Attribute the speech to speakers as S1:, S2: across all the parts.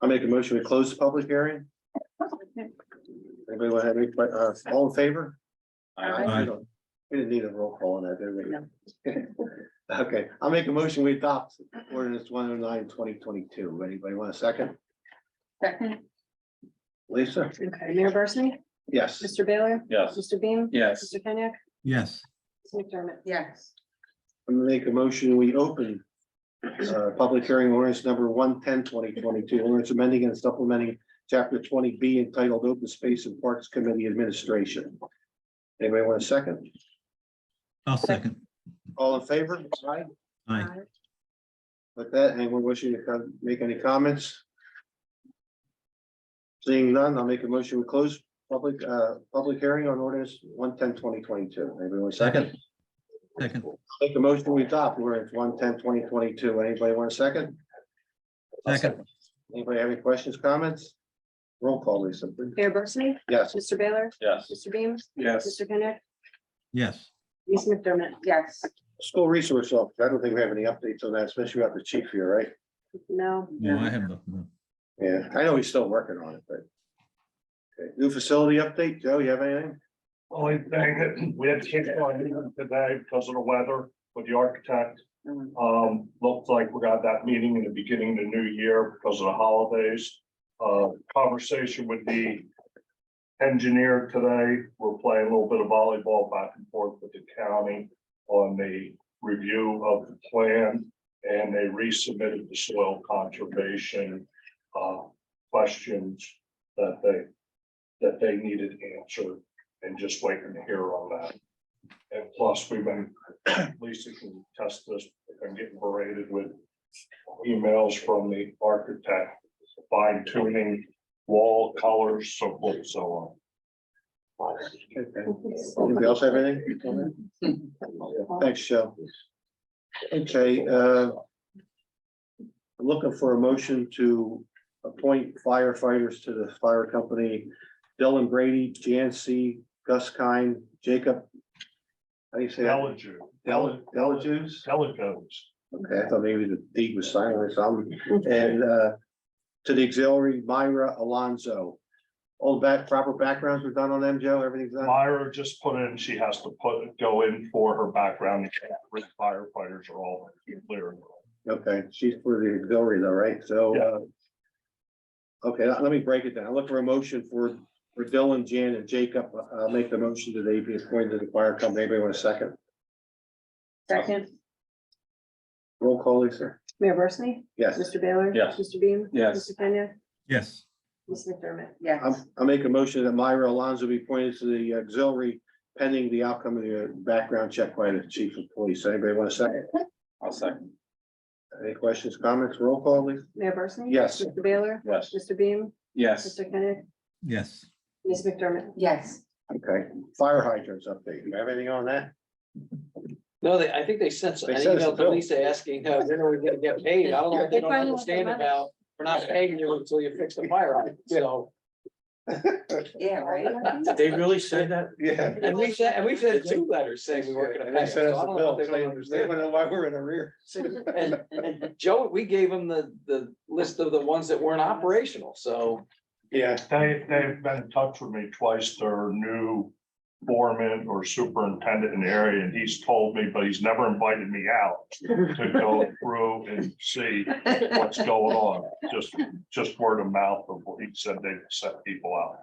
S1: I make a motion, we close the public hearing. Anybody want to have any, que- uh, all in favor?
S2: Aye.
S1: We don't- we didn't need a roll call on that, did
S2: No.
S1: we? Okay, I'll make a motion, we adopt ordinance 109 2022. Anybody want a second?
S2: Second,
S1: Lisa?
S3: Okay, Mayor Barsney?
S1: Yes.
S3: Mr. Baylor?
S4: Yes.
S3: Mr. Beam?
S4: Yes.
S3: Mr. Kenyek?
S5: yes,
S3: Mr. McDermott?
S2: yes,
S1: I'm gonna make a motion, we open uh, public hearing ordinance number 110 2022. ordinance amending and supplementing chapter twenty B entitled Open Space and Parks Committee Administration. Anybody want a second?
S5: I'll second.
S1: All in favor? Aye.
S5: Aye,
S1: With that, anyone wishing to come, make any comments? Seeing none, I'll make a motion, we close public, uh, public hearing on ordinance 110 2022. Anybody want a second?
S5: second,
S1: Make a motion, we adopt ordinance 110 2022. Anybody want a second?
S5: second,
S1: Anybody have any questions, comments? Roll call, Lisa. please.
S3: Mayor Barsney?
S1: Yes,
S3: Mr. Baylor?
S4: Yes.
S3: Mr. Beam?
S4: Yes.
S3: Mr. Kenyek?
S5: yes,
S3: Lisa McDermott?
S2: yes.
S1: school resource officer. I don't think we have any updates on that, especially about the chief here, right?
S3: No.
S5: no, I have nothing.
S1: Yeah, I know he's still working on it, but. Okay, New facility update, Joe, you have anything?
S6: Only thing that we had to change our meeting today because of the weather with the architect.
S2: Mm.
S6: Um, looked like we got that meeting in the beginning of the new year because of the holidays. Uh, conversation with the engineer today. We're playing a little bit of volleyball back and forth with the county on the review of the plan. And they resubmitted the soil conservation, uh, questions that they, that they needed answered and just waiting to hear on that. And plus, we've been, Lisa can test this, I'm getting berated with emails from the architect, fine tuning wall colors, so forth, so on.
S1: Okay. Anybody else have anything? Thanks, Joe. Okay, uh. I'm Looking for a motion to appoint firefighters to the fire company. Dylan Brady, Jan C, Gus Kine, Jacob. How do you say that?
S6: Delegate.
S1: Del- Delajuice?
S6: Telecoms.
S1: Okay, I thought maybe the deed was signed or something, and uh, to the auxiliary Myra Alonso. All back, proper backgrounds were done on them, Joe, everything's done,
S6: Myra just put in, she has to put, go in for her background, the firefighters are all clear.
S1: okay, she's for the auxiliary though, right, so.
S6: Yeah.
S1: uh, Okay, let let me break it down, I look for a motion for, for Dylan, Jan, and Jacob, uh, make the motion that they be appointed to the fire company, anybody want a second?
S2: Second,
S1: Roll call, Lisa,
S3: Mayor Barsney?
S1: yes.
S3: Mr. Baylor?
S4: Yes.
S3: Mr. Beam?
S4: Yes.
S3: Mr. Kenyek?
S5: yes,
S3: Lisa McDermott?
S2: yes,
S1: I'm- I make a motion that Myra Alonso be appointed to the auxiliary pending the outcome of the uh, background check by the chief of police. Anybody want a second?
S4: I'll second.
S1: Any questions, comments, roll call, please?
S3: Mayor Barsney?
S1: Yes.
S3: Mr. Baylor?
S4: Yes.
S3: Mr. Beam?
S4: Yes.
S3: Mr. Kenyek?
S5: yes,
S3: Lisa McDermott?
S2: yes.
S1: Okay, fire hydrants update. You have anything on that?
S7: No, they, I think they sent
S1: They
S7: an
S1: sent us a
S7: email to
S1: bill.
S7: Lisa asking, uh, when are we gonna get paid? I don't know if they don't
S3: They finally
S7: understand
S3: want their
S7: about, we're not paying you until you fix the fire hydrant, so.
S2: Yeah, right?
S7: Did they really say that?
S1: Yeah.
S7: And we sent, and we sent two letters saying we weren't gonna
S1: And
S7: pay.
S1: they
S7: them,
S1: sent
S7: so
S1: us
S7: I
S1: a
S7: don't know
S1: bill.
S7: if they
S1: They
S7: don't
S1: they
S7: understand.
S1: wanna know why we're in arrear.
S7: And, and Joe, we gave them the, the list of the ones that weren't operational, so,
S1: Yeah.
S6: They, they've been in touch with me twice, their new foreman or superintendent in the area, and he's told me, but he's never invited me out to go through and see what's going on, just, just word of mouth of what he said they set people out.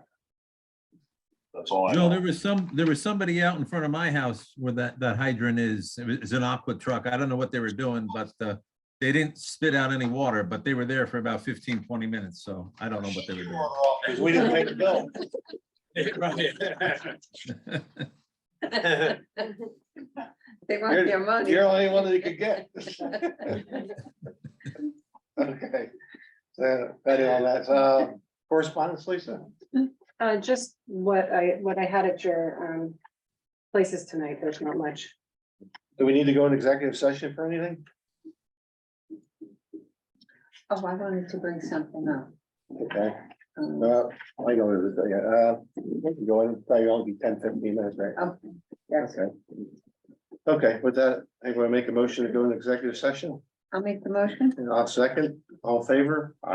S6: That's all I
S5: Joe,
S6: know.
S5: there was some, there was somebody out in front of my house where that, that hydrant is, it was it's an aqua truck, I don't know what they were doing, but uh. They didn't spit out any water, but they were there for about 15, 20 minutes, so I don't know what they were doing.
S1: Cause we didn't pay the bill.
S2: They want their money.
S1: You're the only one that you could get. Okay. So, that is all that, uh, correspondence, Lisa?
S3: Uh, just what I, what I had at your, um, places tonight, there's not much.
S1: Do we need to go in executive session for anything?
S2: Oh, I wanted to bring something up.
S1: Okay,
S2: Um,
S1: uh, I go with it, yeah, uh, go in, probably only be 10, 15 minutes, right?
S2: Okay, yes.
S1: Okay. Okay, with that, I'm gonna make a motion to go in executive session,
S2: I'll make the motion.
S1: and I'll second, all in favor?